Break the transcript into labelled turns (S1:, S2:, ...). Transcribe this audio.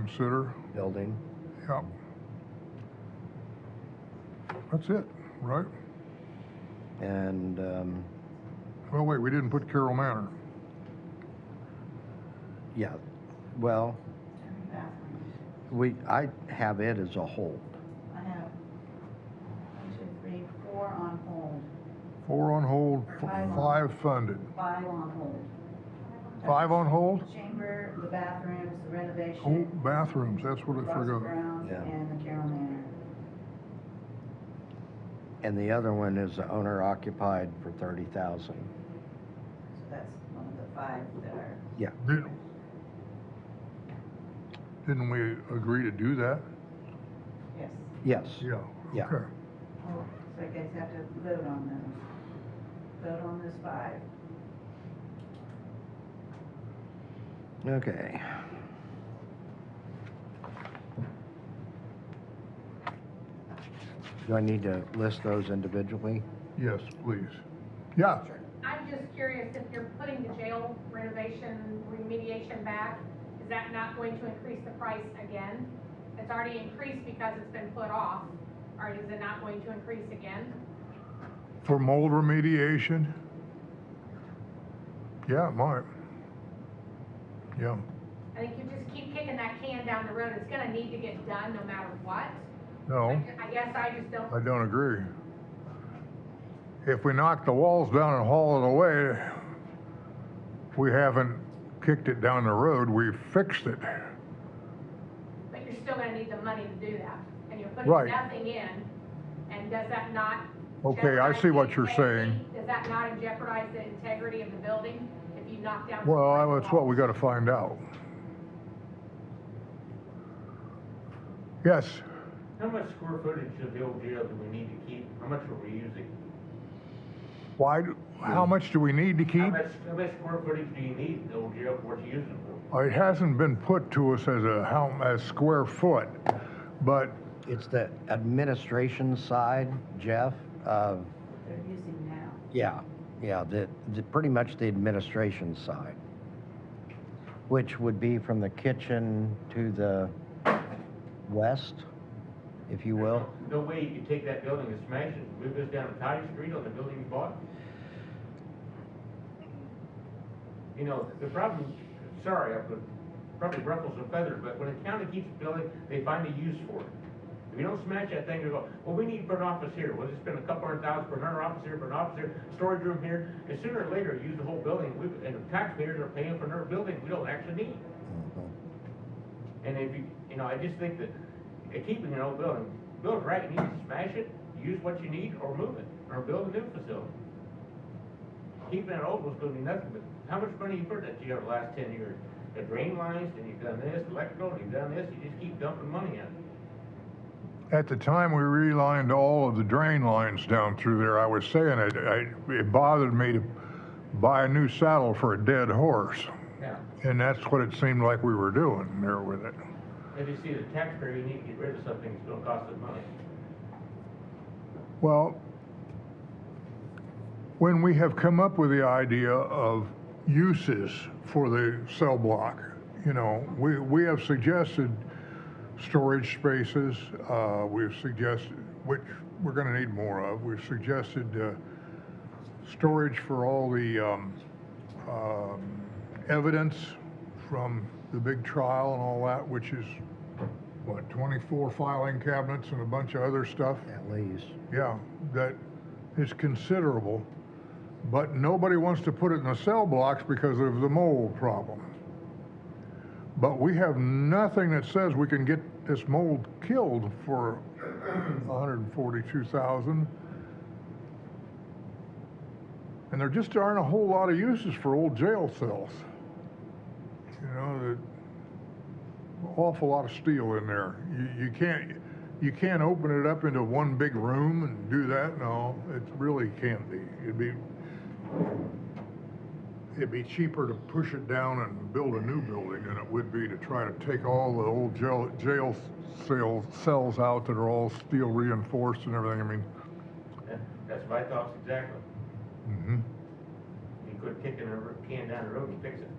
S1: consider.
S2: building.
S1: Yep. That's it, right?
S2: And um,
S1: Well, wait, we didn't put Carroll Manor.
S2: yeah, well, we, I have it as a hold.
S3: I have one, two, three, four on hold,
S1: Four on hold, f-
S3: Five on-
S1: five funded.
S3: five on hold.
S1: Five on hold?
S3: Chamber, the bathrooms, the
S1: Oh,
S3: renovation,
S1: bathrooms, that's what I
S3: Russell
S1: forgot.
S3: Brown,
S2: Yeah.
S3: and the Carroll Manor.
S2: And the other one is the owner occupied for thirty thousand.
S3: So that's one of the five that are,
S1: Didn't- Didn't we agree to do that?
S3: yes.
S2: Yes,
S1: Yeah.
S2: Yeah.
S1: Okay.
S3: Oh, So you guys have to vote on those. Vote on those five.
S2: okay. Do I need to list those individually?
S1: Yes, please. Yeah,
S4: I'm just curious, if you're putting the jail renovation remediation back, is that not going to increase the price again? It's already increased because it's been put off, or is it not going to increase again?
S1: for mold remediation? Yeah, it might. Yeah,
S4: I think you just keep kicking that can down the road, it's gonna need to get done no matter what.
S1: no,
S4: I- I guess I just don't,
S1: I don't agree. If we knock the walls down and haul it away, we haven't kicked it down the road, we fixed it.
S4: but you're still gonna need the money to do that, and you're putting
S1: Right.
S4: nothing in, and does that not?
S1: Okay, I see what
S4: jeopardize the
S1: you're saying.
S4: integrity? Does that not jeopardize the integrity of the building if you knock down? some
S1: Well,
S4: brick
S1: that's what we
S4: walls?
S1: gotta find out. Yes,
S5: How much square footage of the old jail do we need to keep? How much are we using?
S1: why, do- how much do we need to
S5: How
S1: keep?
S5: much, how much square footage do you need in the old jail for what you use it for?
S1: It hasn't been put to us as a, how, as square foot, but
S2: It's the administration side, Jeff, of
S3: They're using now.
S2: Yeah, yeah, the, the, pretty much the administration side, which would be from the kitchen to the west, if you will.
S5: No way you could take that building and smash it, move this down Cottage Street on the building you bought? You know, the problem, sorry, I put, probably ruffles some feathers, but when a county keeps a building, they find a use for it. If you don't smash that thing, they go, well, we need to put an office here, we'll just spend a couple hundred thousand, put another office here, put an office here, storage room here, and sooner or later, use the whole building, we, and the taxpayers are paying for another building we don't actually need. And if you, you know, I just think that uh, keeping an old building, build it right, you need to smash it, use what you need, or move it, or build a new facility. Keeping it old was gonna be nothing but, how much money you put in it over the last ten years? The drain lines, and you've done this, electrical, and you've done this, you just keep dumping money out.
S1: At the time, we relined all of the drain lines down through there. I was saying it, I, it bothered me to buy a new saddle for a dead horse.
S5: Yeah.
S1: And that's what it seemed like we were doing there with it.
S5: If you see the taxpayer, you need to get rid of something that's gonna cost us money.
S1: Well, when we have come up with the idea of uses for the cell block, you know, we, we have suggested storage spaces, uh, we've suggested, which we're gonna need more of, we've suggested, uh, storage for all the, um, um, evidence from the big trial and all that, which is, what, twenty-four filing cabinets and a bunch of other stuff?
S2: At least,
S1: Yeah, that is considerable, but nobody wants to put it in the cell blocks because of the mold problem. But we have nothing that says we can get this mold killed for hundred and forty-two thousand. And there just aren't a whole lot of uses for old jail cells. You know, that awful lot of steel in there. You, you can't, you can't open it up into one big room and do that, no, it really can't be. It'd be, it'd be cheaper to push it down and build a new building than it would be to try to take all the old jail, jail cells, cells out that are all steel reinforced and everything, I mean,
S5: That- That's my thoughts exactly.
S1: mhm.
S5: You could kick a can down the road and fix it.